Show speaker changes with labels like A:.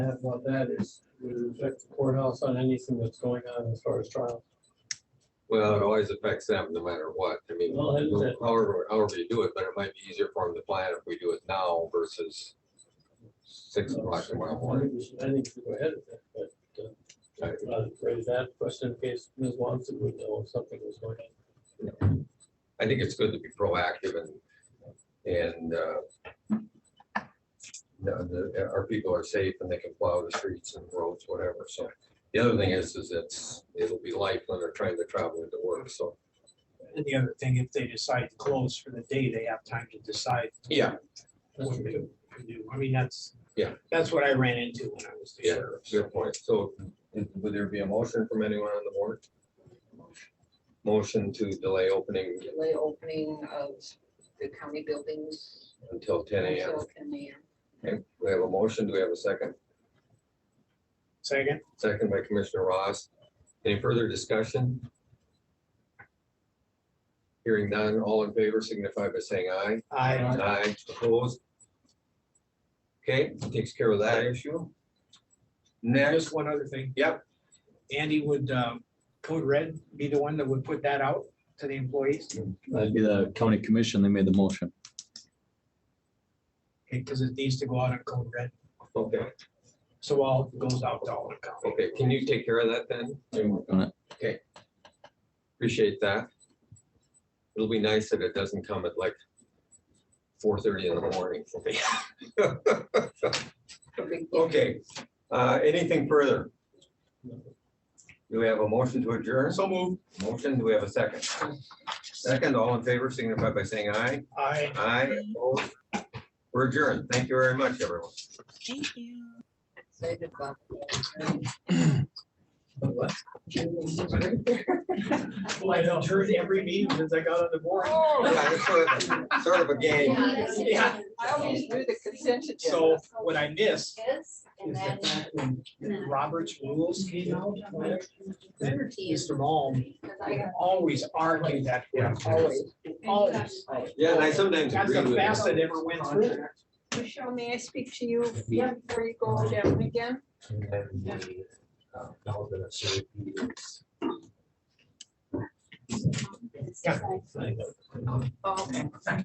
A: had about that is, would it affect the courthouse on anything that's going on as far as trial?
B: Well, it always affects them no matter what. I mean,
A: Well, that's it.
B: however, however you do it, but it might be easier for them to plan if we do it now versus six o'clock tomorrow
A: I
B: morning.
A: think we should- I think we should go ahead with that, but,
B: Right.
A: uh, I'll raise that question in case Ms. Watson would know if something was going on.
B: I think it's good to be proactive and, and, uh, you know, the, our people are safe and they can plow the streets and roads, whatever. So the other thing is, is it's, it'll be light when they're trying to travel into work. So,
C: And the other thing, if they decide to close for the day, they have time to decide.
B: Yeah.
A: That's
C: What
A: true.
C: they can do. I mean, that's.
B: Yeah.
C: That's what I ran into when I was the
B: Yeah.
C: sheriff.
B: fair point. So would there be a motion from anyone on the board? Motion to delay opening
D: delay opening of the county buildings
B: until ten AM.
D: until ten AM.
B: Okay, We have a motion. Do we have a second?
C: Second,
B: Second by Commissioner Ross. Any further discussion? Hearing none, all in favor signify by saying aye.
C: I,
B: Aye, opposed. Okay, takes care of that issue. Next,
C: just one other thing.
B: Yep.
C: Andy would, um, Code Red be the one that would put that out to the employees,
E: That'd be the county commission. They made the motion.
C: because it needs to go out on Code Red.
B: okay,
C: So all goes out to all the county.
B: okay, can you take care of that then?
E: They work on it.
B: Appreciate that. It'll be nice that it doesn't come at like four thirty in the morning for me. Okay, uh, anything further? Do we have a motion to adjourn?
C: So move.
B: Motion, do we have a second? Second, all in favor signify by saying aye.
C: I.
B: Aye. opposed. We're adjourned. Thank you very much, everyone.
F: Thank you.
D: Excited about
C: Well, I don't heard every meeting since I got on the board.
B: Yeah, it's sort of- Sort of a game.
C: Yeah.
D: I always do the consent agenda.
C: So what I missed
G: Yes, and
C: is
G: then.
C: the fact when Robert's rules came out, Mr. Malm always argued that.
B: Yeah.
D: Always.
C: Always.
B: Yeah, and I sometimes
C: That's
B: agree
C: the
B: with
C: best
B: you.
C: that ever went through.
D: Michelle, may I speak to you before you go over that one again?
A: Thank you.
D: Okay.